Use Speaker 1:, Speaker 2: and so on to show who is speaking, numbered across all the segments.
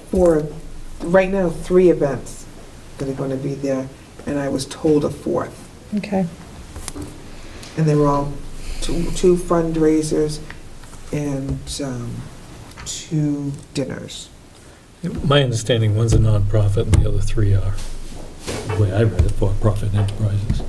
Speaker 1: four, right now, three events that are going to be there, and I was told a fourth.
Speaker 2: Okay.
Speaker 1: And they were all two two fundraisers and um, two dinners.
Speaker 3: My understanding, one's a nonprofit and the other three are, the way I read it, for-profit enterprises.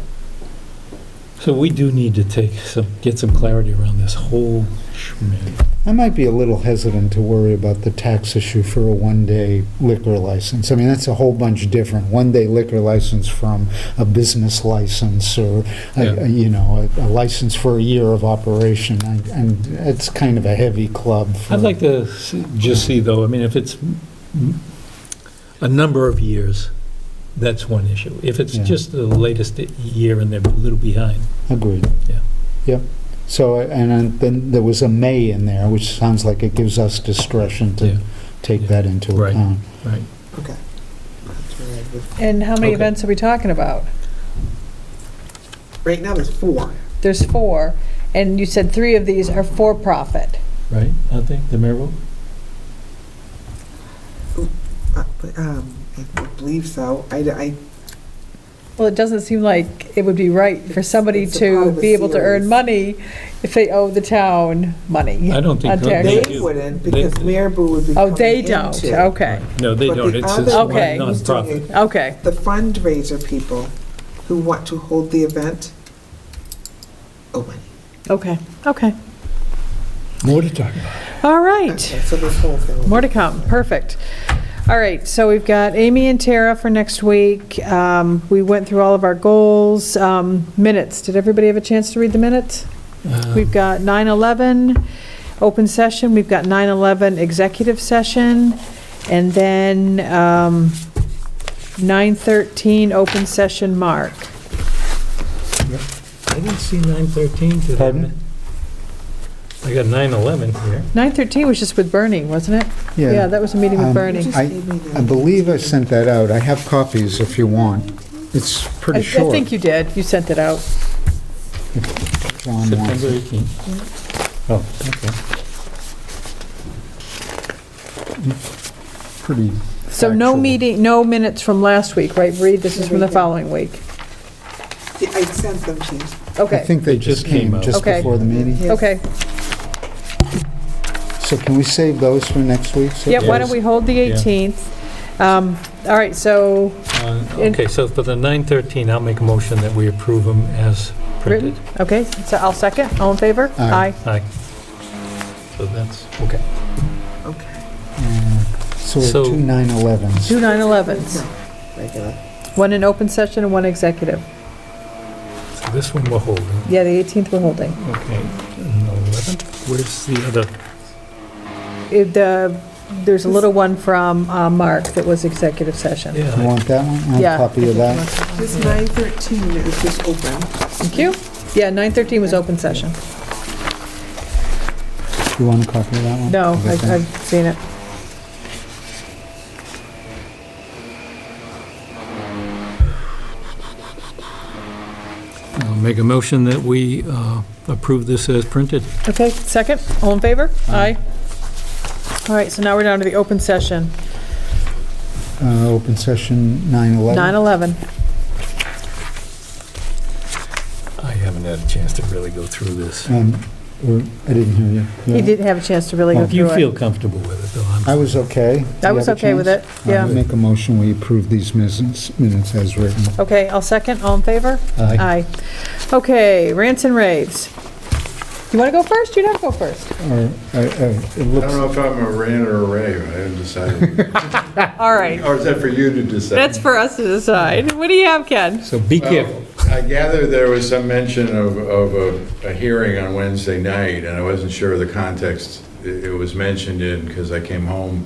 Speaker 3: So we do need to take some, get some clarity around this whole schmin.
Speaker 4: I might be a little hesitant to worry about the tax issue for a one-day liquor license. I mean, that's a whole bunch different. One-day liquor license from a business license or, a-
Speaker 3: Yeah.
Speaker 4: a- you know, a a license for a year of operation. I- And it's kind of a heavy club for...
Speaker 3: I'd like to see- just see, though, I mean, if it's m- a number of years, that's one issue. If it's
Speaker 4: Yeah.
Speaker 3: just the latest year and they're a little behind,
Speaker 4: Agreed.
Speaker 3: Yeah.
Speaker 4: Yep. So, and then- then there was a "may" in there, which sounds like it gives us discretion
Speaker 3: Yeah.
Speaker 4: to take
Speaker 3: Yeah.
Speaker 4: that into
Speaker 3: Right.
Speaker 4: account.
Speaker 3: right?
Speaker 1: Okay. That's what I would-
Speaker 2: And how many
Speaker 3: Okay.
Speaker 2: events are we talking about?
Speaker 1: Right now, there's four.
Speaker 2: There's four, and you said three of these are for-profit.
Speaker 3: Right, I think, the Maryville?
Speaker 1: Uh, but, um, I believe so. I, I,
Speaker 2: Well, it doesn't seem like it would be right for somebody
Speaker 1: It's- it's a part
Speaker 2: to
Speaker 1: of a
Speaker 2: be able to earn
Speaker 1: series.
Speaker 2: money if they owe the town money.
Speaker 3: I don't think.
Speaker 2: On tax.
Speaker 3: they
Speaker 1: they
Speaker 3: do.
Speaker 1: wouldn't,
Speaker 3: They-
Speaker 1: because Mirabu would be
Speaker 2: Oh, they
Speaker 1: coming
Speaker 2: don't,
Speaker 1: into-
Speaker 2: okay,
Speaker 3: No, they
Speaker 1: But the
Speaker 3: don't, it's it's
Speaker 1: other
Speaker 3: one
Speaker 2: Okay.
Speaker 1: one who's doing
Speaker 3: nonprofit.
Speaker 1: it,
Speaker 2: okay.
Speaker 1: The fundraiser people who want to hold the event, oh, money.
Speaker 2: Okay, okay.
Speaker 3: More to talk about.
Speaker 2: All right.
Speaker 1: Okay, So this whole thing. will be-
Speaker 2: More to come, perfect. All right, so we've got Amy and Tara for next week. Um, We went through all of our goals, Um, minutes. Did everybody have a chance to read the minutes?
Speaker 3: Uh,
Speaker 2: We've got 9/11, open session, we've got 9/11, executive session, and then um, 9/13, open session, Mark.
Speaker 3: I didn't see 913 today.
Speaker 4: Pardon?
Speaker 3: I got 911 here.
Speaker 2: 9/13 was just with Bernie, wasn't it? Yeah, that was a meeting with
Speaker 4: Um,
Speaker 1: You
Speaker 2: Bernie.
Speaker 1: just
Speaker 4: I-
Speaker 1: gave me the-
Speaker 4: I believe I sent that out. I have copies if you want. It's
Speaker 2: I
Speaker 4: pretty
Speaker 2: I
Speaker 4: short.
Speaker 2: think you did, you sent it out.
Speaker 4: John wants
Speaker 3: September
Speaker 4: it.
Speaker 3: 18th. Oh,
Speaker 4: Pretty
Speaker 2: So no
Speaker 4: Actual.
Speaker 2: meeting, no minutes from last week, right, Bree? This is from the
Speaker 1: Everything.
Speaker 2: following week.
Speaker 1: Yeah, I sent them to you.
Speaker 4: I
Speaker 2: Okay,
Speaker 4: think they just came
Speaker 3: out.
Speaker 4: just
Speaker 2: Okay.
Speaker 4: before the meeting.
Speaker 1: Yeah.
Speaker 2: okay.
Speaker 4: So can we save those for next week? so-
Speaker 2: Yeah, why don't we hold the
Speaker 3: Yeah.
Speaker 2: 18th? Um, All right, so
Speaker 3: Uh,
Speaker 2: In-
Speaker 3: Okay, so for the 913, I'll make a motion that we approve them as
Speaker 2: written,
Speaker 3: printed.
Speaker 2: okay, so I'll second, all in favor?
Speaker 4: Aye.
Speaker 3: Aye. So that's, okay.
Speaker 1: Okay.
Speaker 4: Uh, So we're
Speaker 3: So-
Speaker 4: two 9/11s.
Speaker 2: Two 9/11s,
Speaker 1: Regular.
Speaker 2: one in open session and one executive.
Speaker 3: So this one we're holding.
Speaker 2: Yeah, the 18th we're holding.
Speaker 3: Okay. And 11, where's the other?
Speaker 2: It, uh, There's a little one from uh, Mark that was executive session.
Speaker 4: You
Speaker 3: Yeah,
Speaker 4: want that one? I have
Speaker 2: Yeah.
Speaker 4: a copy of that.
Speaker 1: This nine thirteen is just open.
Speaker 2: Thank you. Yeah, 9:13 was open session.
Speaker 4: You want a copy of that one?
Speaker 2: No,
Speaker 4: Okay,
Speaker 2: I've
Speaker 4: thank-
Speaker 2: I've seen it.
Speaker 3: I'll make a motion that we uh, approve this as printed.
Speaker 2: Okay, second, all in favor? Aye. All right, so now we're down to the open session,
Speaker 4: Uh, Open session 9/11.
Speaker 2: 9/11.
Speaker 3: I haven't had a chance to really go through this.
Speaker 4: Um, or- I didn't hear you.
Speaker 2: He
Speaker 4: Yeah.
Speaker 2: didn't have a chance to really go
Speaker 3: If you
Speaker 2: through
Speaker 3: feel
Speaker 2: it.
Speaker 3: comfortable with it, though, I'm...
Speaker 4: I was okay.
Speaker 2: I
Speaker 4: You
Speaker 2: was
Speaker 4: have a
Speaker 2: okay with
Speaker 4: chance? Uh-huh.
Speaker 2: it,
Speaker 4: I'll
Speaker 2: yeah.
Speaker 4: Make a motion, we approve these minutes minutes as written.
Speaker 2: Okay, I'll second, all in favor? Aye. Okay, rants and raves. You want to go first? You don't have to go first.
Speaker 4: Or, uh, uh, It
Speaker 5: I
Speaker 4: looks
Speaker 5: don't know if I'm a rant or a rave, I haven't decided.
Speaker 2: All right,
Speaker 5: Or is that for you to decide?
Speaker 2: that's for us to decide. What do you have, Ken?
Speaker 3: So be
Speaker 5: Well,
Speaker 3: careful.
Speaker 5: I gather there was some mention of, of a, a hearing on Wednesday night, and I wasn't sure of the context it it was mentioned in, because I came home.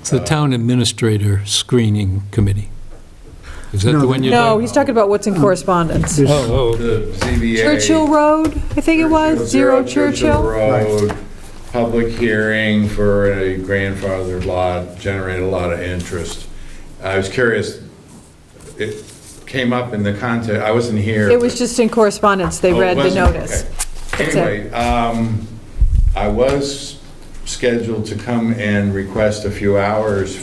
Speaker 3: It's the Town Administrator Screening Committee. Is that
Speaker 4: No,
Speaker 3: the one you're...
Speaker 2: No,
Speaker 3: talking-
Speaker 2: he's talking about what's
Speaker 5: Hmm.
Speaker 2: in correspondence.
Speaker 4: there's-
Speaker 3: Oh, oh,
Speaker 5: The ZBA.
Speaker 2: Churchill Road, I think it was, Zero Churchill.
Speaker 5: Road, public hearing for a grandfathered lot, generated a lot of interest. I was curious, it came up in the context, I wasn't here.
Speaker 2: It was just in correspondence, they
Speaker 5: Oh,
Speaker 2: read
Speaker 5: it
Speaker 2: the
Speaker 5: wasn't?
Speaker 2: notice.
Speaker 5: Okay.
Speaker 2: That's it.
Speaker 5: Anyway, um, I was scheduled to come and request a few hours